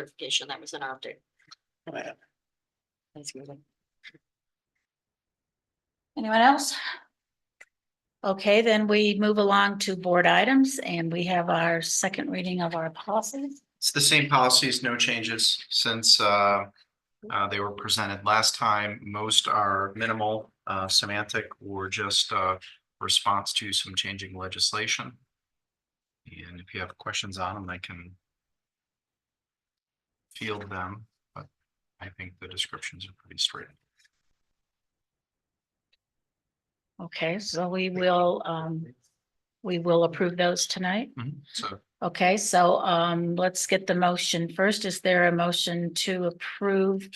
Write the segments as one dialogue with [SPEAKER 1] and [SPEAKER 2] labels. [SPEAKER 1] certification that was in our update.
[SPEAKER 2] Right.
[SPEAKER 1] Thanks, Megan.
[SPEAKER 3] Anyone else? Okay, then we move along to board items and we have our second reading of our policies.
[SPEAKER 4] It's the same policies, no changes since uh, uh, they were presented last time. Most are minimal uh, semantic or just uh, response to some changing legislation. And if you have questions on them, I can field them, but I think the descriptions are pretty straight.
[SPEAKER 3] Okay, so we will, um, we will approve those tonight.
[SPEAKER 4] Mhm. So
[SPEAKER 3] Okay, so, um, let's get the motion first. Is there a motion to approve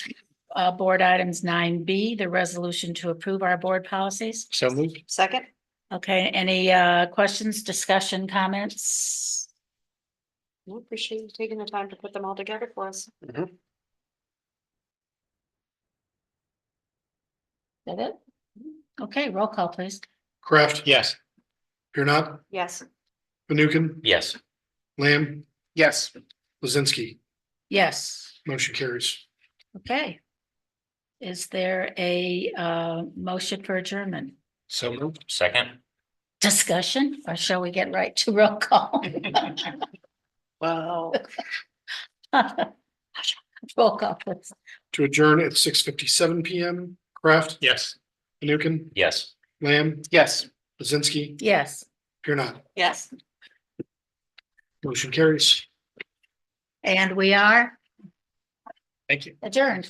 [SPEAKER 3] uh, board items nine B, the resolution to approve our board policies?
[SPEAKER 2] So moved.
[SPEAKER 1] Second,
[SPEAKER 3] Okay, any, uh, questions, discussion, comments?
[SPEAKER 1] we appreciate you taking the time to put them all together for us.
[SPEAKER 3] Is That it? Okay, roll call, please.
[SPEAKER 5] Craft,
[SPEAKER 2] Yes.
[SPEAKER 5] Here not,
[SPEAKER 1] Yes,
[SPEAKER 5] Fanukin,
[SPEAKER 2] Yes.
[SPEAKER 5] Lamb,
[SPEAKER 2] Yes.
[SPEAKER 5] Lizinski,
[SPEAKER 3] Yes.
[SPEAKER 5] motion carries.
[SPEAKER 3] Okay. Is there a uh motion for adjournment?
[SPEAKER 2] So moved. Second.
[SPEAKER 3] Discussion, or shall we get right to roll call?
[SPEAKER 1] wow.
[SPEAKER 3] Roll call, please.
[SPEAKER 5] To adjourn at six fifty-seven PM, Craft,
[SPEAKER 2] Yes.
[SPEAKER 5] Fanukin,
[SPEAKER 2] Yes.
[SPEAKER 5] Lamb,
[SPEAKER 2] Yes.
[SPEAKER 5] Lizinski,
[SPEAKER 3] Yes.
[SPEAKER 5] Here not,
[SPEAKER 1] Yes.
[SPEAKER 5] motion carries.
[SPEAKER 3] And we are
[SPEAKER 2] Thank you.
[SPEAKER 3] adjourned.